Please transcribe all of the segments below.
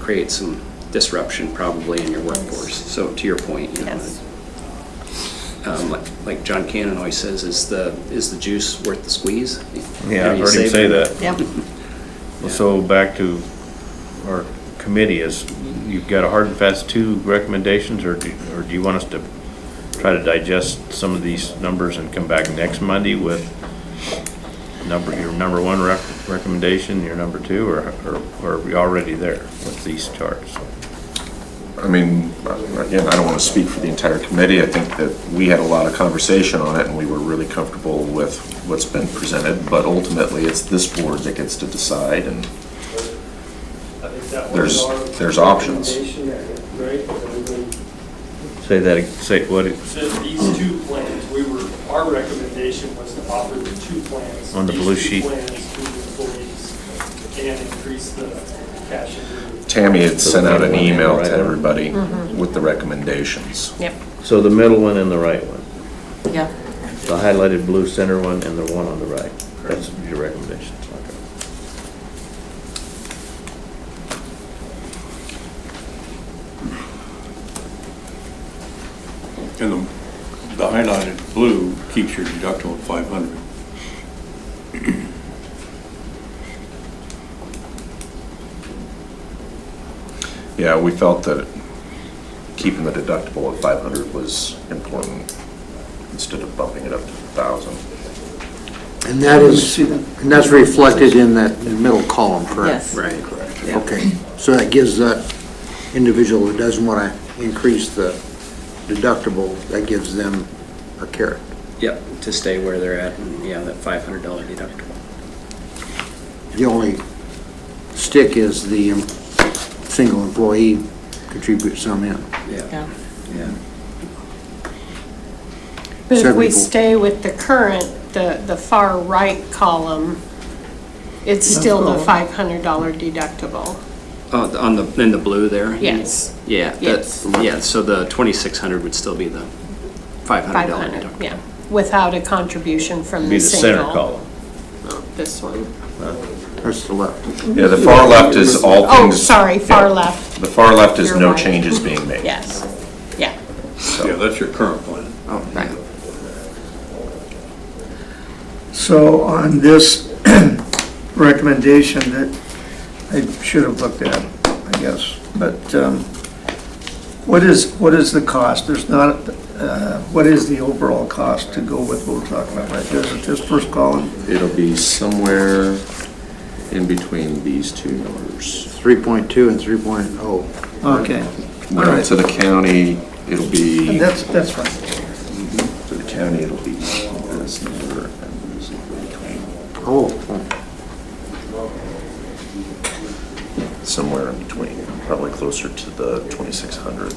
create some disruption probably in your workforce. So to your point, you know, Yes. um, like- like John Cannon always says, is the, is the juice worth the squeeze? You know, Yeah, I've you heard him save say it. that. Yep. Well, So back to our committee is, you've got a hard and fast two recommendations, or do, or do you want us to try to digest some of these numbers and come back next Monday with number, your number one rec- recommendation, your number two, or, or or are we already there with these charts? I mean, again, I don't want to speak for the entire committee. I think that we had a lot of conversation on it, and we were really comfortable with what's been presented, but ultimately, it's this board that gets to decide, and There's- there's options. Right? And then Say that, ag- say what, it- just These two plans, we were, our recommendation was to offer the two plans. On the these blue two sheet. plans to the employees and increase the cash. and- Tammy had sent out an email Right. to everybody Mm-hmm. with the recommendations. Yep. so the middle one and the right one, Yeah. the highlighted blue center one and the one on the right, that's your recommendation. And the, the highlighted blue keeps your deductible at five hundred. Yeah, we felt that keeping the deductible at 500 was important instead of bumping it up to 1,000. Mm-hmm. And that is, and that's reflected in that middle column, correct? Yes. Right. Yeah. Okay, so that gives that individual who doesn't want to increase the deductible, that gives them a carrot. Yep, to stay where they're at, and yeah, that $500 deductible. The only stick is the um, single employee contributes some in. Yeah, Yeah. yeah. But if we Seventy-four. stay with the current, the, the far right column, it's still the five hundred dollar deductible. Oh, the- on the, in the blue there? you mean? Yes. Yeah, that, Yes. yeah, so the 2,600 would still be the $500 Five hundred, deductible. yeah, without a contribution from Be the the center single, column. this one. That's the left. Yeah, the far left is all Oh, things. sorry, far yeah. left, The far left is You're no right. changes being made. yes, yeah. Yeah, that's your current plan. Oh, right. So on this recommendation that I should have looked at, I guess, but um, what is, what is the cost? There's not, uh, what is the overall cost to go with what we're talking about right there? Is it this first column? It'll be somewhere in between these two numbers. 3.2 and oh. 3.0. Okay, All No, right. to the county, it'll be, that's, that's fine. to the county, it'll be this number. and this number, Oh, Somewhere in between, probably closer to the 2,600.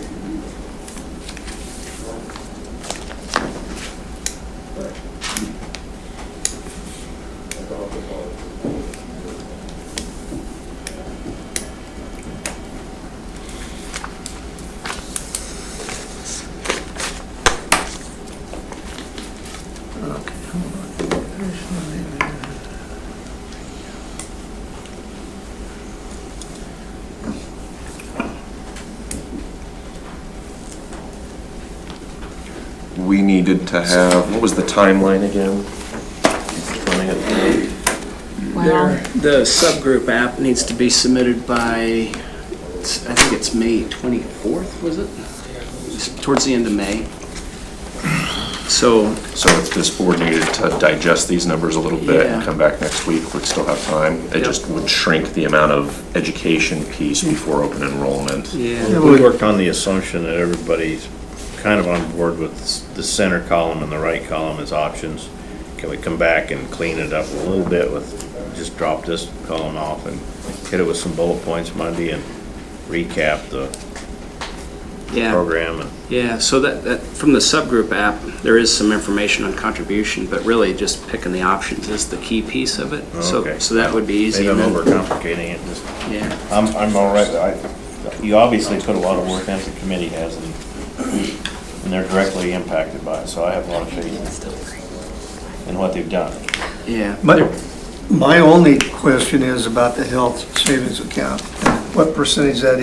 We needed to have, what was the timeline again? Running it Wow. The subgroup app needs to be submitted by, it's- I think it's May 24th, was it? It's Towards the end of May. So, So if this board needed to digest these numbers a little bit and Yeah. come back next week, we'd still have time. It Yep. just would shrink the amount of education piece before open enrollment. yeah, We worked on the assumption that everybody's kind of on board with the center column and the right column as options. Can we come back and clean it up a little bit with, just drop this column off and hit it with some bullet points Monday and recap the yeah, program and yeah. So that, that, from the subgroup app, there is some information on contribution, but really just picking the options is the key piece of it. So, Okay. so that would be easy. maybe I'm and then- overcomplicating it, just, Yeah. I'm, I'm all right, I, you obviously put a lot of work into the committee has and, and they're directly impacted by it, so I have a lot of faith in what they've done. Yeah. My, my only question is about the health savings account. What percentage that